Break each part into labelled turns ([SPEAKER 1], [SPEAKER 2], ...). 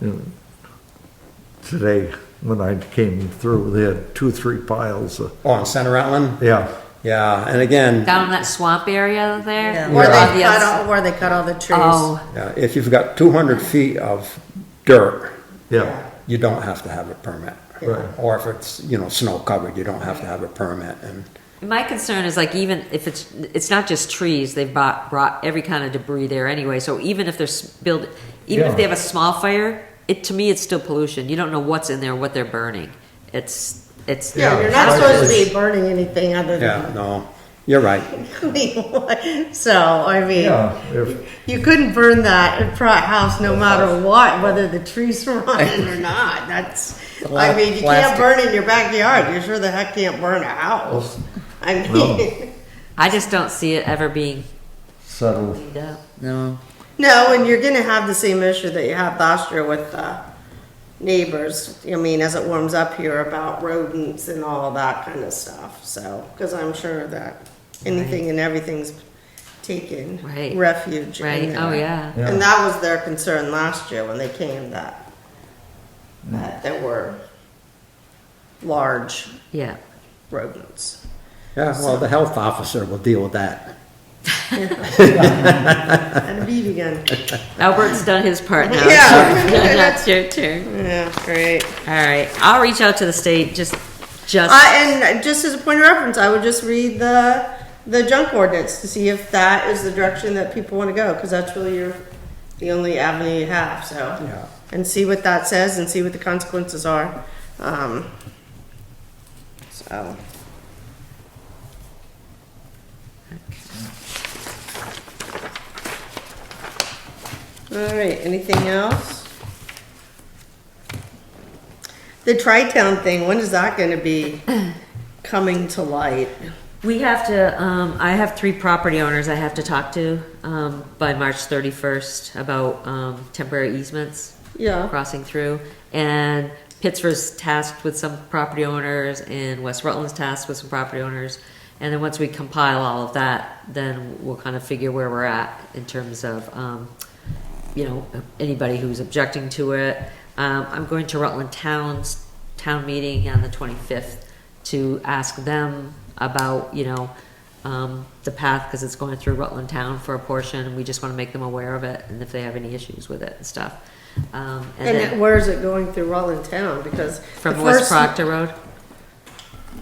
[SPEAKER 1] And Today, when I came through, they had two, three piles of,
[SPEAKER 2] Oh, on Center Island?
[SPEAKER 1] yeah,
[SPEAKER 2] Yeah, and again,
[SPEAKER 3] Down in that swamp area there?
[SPEAKER 4] Yeah,
[SPEAKER 3] Or
[SPEAKER 4] Where
[SPEAKER 3] on
[SPEAKER 4] they
[SPEAKER 3] the
[SPEAKER 4] cut
[SPEAKER 3] other-
[SPEAKER 4] all, where they cut all the trees.
[SPEAKER 3] Oh,
[SPEAKER 2] yeah, if you've got 200 feet of dirt,
[SPEAKER 1] yeah,
[SPEAKER 2] you don't have to have a permit.
[SPEAKER 1] Right.
[SPEAKER 2] Or if it's, you know, snow covered, you don't have to have a permit. And
[SPEAKER 3] my concern is like even if it's, it's not just trees, they've brought, brought every kind of debris there anyway. So even if they're s- build, even if they
[SPEAKER 1] Yeah.
[SPEAKER 3] have a small fire, it, to me, it's still pollution. You don't know what's in there, what they're burning. It's, it's.
[SPEAKER 4] Yeah, you're not supposed to be burning anything other
[SPEAKER 2] yeah,
[SPEAKER 4] than
[SPEAKER 2] no, you're right.
[SPEAKER 4] clean. So, I mean,
[SPEAKER 1] yeah. If,
[SPEAKER 4] you couldn't burn that in front house no matter what, whether the trees were on it or not. That's,
[SPEAKER 2] A lot
[SPEAKER 4] I
[SPEAKER 2] of
[SPEAKER 4] mean, you can't
[SPEAKER 2] plastic.
[SPEAKER 4] burn in your backyard. You sure the heck can't burn a house. I mean,
[SPEAKER 3] I just don't see it ever being
[SPEAKER 1] settled,
[SPEAKER 3] cleaned up.
[SPEAKER 2] No.
[SPEAKER 4] no, and you're gonna have the same issue that you had last year with the neighbors. I mean, as it warms up here about rodents and all that kind of stuff, so, cause I'm sure that anything and everything's taken
[SPEAKER 3] Right.
[SPEAKER 4] refuge in
[SPEAKER 3] Right, oh,
[SPEAKER 4] there.
[SPEAKER 3] yeah.
[SPEAKER 1] Yeah.
[SPEAKER 4] And that was their concern last year when they came that, that there were large
[SPEAKER 3] Yeah.
[SPEAKER 4] rodents.
[SPEAKER 2] Yeah, well, the health officer will deal with that.
[SPEAKER 4] And a bee again.
[SPEAKER 3] Albert's done his part now.
[SPEAKER 4] Yeah.
[SPEAKER 3] That's your turn.
[SPEAKER 4] Yeah, great.
[SPEAKER 3] All right, I'll reach out to the state, just, just.
[SPEAKER 4] I, and just as a point of reference, I would just read the, the junk ordinance to see if that is the direction that people want to go, because that's really your, the only avenue you have, so.
[SPEAKER 2] Yeah.
[SPEAKER 4] And see what that says and see what the consequences are. Um, so. All right, anything else? The tri-town thing, when is that gonna be coming to light?
[SPEAKER 3] We have to, um, I have three property owners I have to talk to, um, by March thirty-first about, um, temporary easements
[SPEAKER 4] Yeah.
[SPEAKER 3] crossing through. And Pittsburgh's tasked with some property owners and West Rutland's tasked with some property owners. And then once we compile all of that, then we'll kind of figure where we're at in terms of, um, you know, anybody who's objecting to it. Um, I'm going to Rutland Town's town meeting on the twenty-fifth to ask them about, you know, um, the path, because it's going through Rutland Town for a portion, and we just want to make them aware of it, and if they have any issues with it and stuff. Um, and
[SPEAKER 4] And
[SPEAKER 3] then
[SPEAKER 4] where is it going through Rutland Town? Because. the
[SPEAKER 3] from West
[SPEAKER 4] first-
[SPEAKER 3] Proctor Road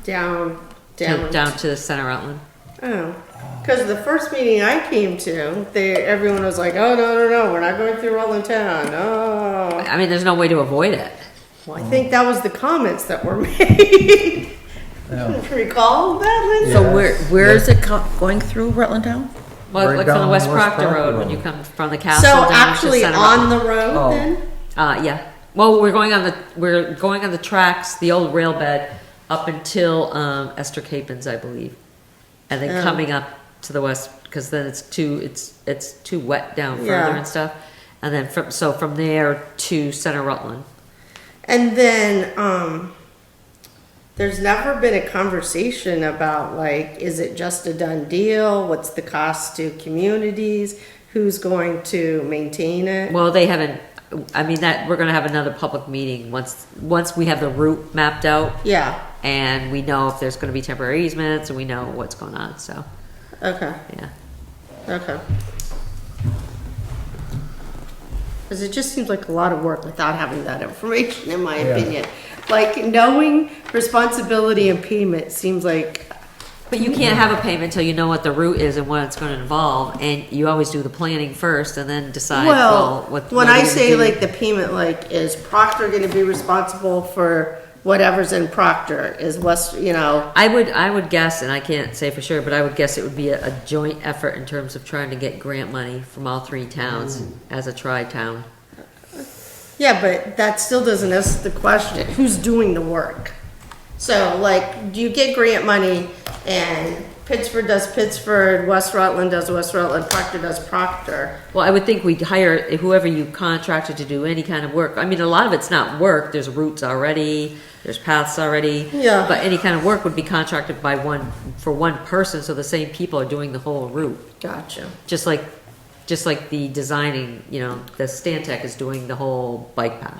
[SPEAKER 4] Down,
[SPEAKER 3] to,
[SPEAKER 4] down.
[SPEAKER 3] down to the center Rutland.
[SPEAKER 4] Oh, because the first meeting I came to, they, everyone was like, oh, no, no, no, we're not going through Rutland Town, oh.
[SPEAKER 3] I mean, there's no way to avoid it.
[SPEAKER 4] Well, I think that was the comments that were made. Recall that, Linda?
[SPEAKER 5] So where, where is it co- going through Rutland Town?
[SPEAKER 3] Well,
[SPEAKER 1] Right
[SPEAKER 3] like from the
[SPEAKER 1] down
[SPEAKER 3] West
[SPEAKER 1] West
[SPEAKER 3] Proctor
[SPEAKER 1] Proctor
[SPEAKER 3] Road, when
[SPEAKER 1] Road.
[SPEAKER 3] you come from the
[SPEAKER 4] So
[SPEAKER 3] castle down to
[SPEAKER 4] actually
[SPEAKER 3] center
[SPEAKER 4] on
[SPEAKER 3] Rutland.
[SPEAKER 4] the road
[SPEAKER 5] Oh.
[SPEAKER 4] then?
[SPEAKER 3] Uh, yeah. Well, we're going on the, we're going on the tracks, the old rail bed, up until, um, Esther Capens, I believe. And
[SPEAKER 4] Oh.
[SPEAKER 3] then coming up to the west, because then it's too, it's, it's too wet down further
[SPEAKER 4] Yeah.
[SPEAKER 3] and stuff. And then from, so from there to center Rutland.
[SPEAKER 4] And then, um, there's never been a conversation about like, is it just a done deal? What's the cost to communities? Who's going to maintain it?
[SPEAKER 3] Well, they haven't, I mean, that, we're gonna have another public meeting once, once we have the route mapped out
[SPEAKER 4] Yeah,
[SPEAKER 3] and we know if there's gonna be temporary easements and we know what's going on, so,
[SPEAKER 4] okay.
[SPEAKER 3] yeah.
[SPEAKER 4] Okay. Because it just seems like a lot of work without having that information, in my opinion. Like, knowing responsibility and payment seems like,
[SPEAKER 3] But you can't have a payment till you know what the route is and what it's gonna involve, and you always do the planning first and then decide, well,
[SPEAKER 4] well,
[SPEAKER 3] what.
[SPEAKER 4] when
[SPEAKER 3] what are
[SPEAKER 4] I
[SPEAKER 3] you
[SPEAKER 4] say
[SPEAKER 3] gonna do?
[SPEAKER 4] like the payment, like, is Proctor gonna be responsible for whatever's in Proctor? Is West, you know,
[SPEAKER 3] I would, I would guess, and I can't say for sure, but I would guess it would be a, a joint effort in terms of trying to get grant money from all three towns as a tri-town.
[SPEAKER 4] yeah, but that still doesn't ask the question, who's doing the work? So like, do you get grant money and Pittsburgh does Pittsburgh, West Rutland does West Rutland, Proctor does Proctor?
[SPEAKER 3] Well, I would think we'd hire whoever you contracted to do any kind of work. I mean, a lot of it's not work. There's routes already, there's paths already.
[SPEAKER 4] Yeah.
[SPEAKER 3] But any kind of work would be contracted by one, for one person, so the same people are doing the whole route.
[SPEAKER 4] Gotcha.
[SPEAKER 3] Just like just like the designing, you know, the Stantec is doing the whole bike path.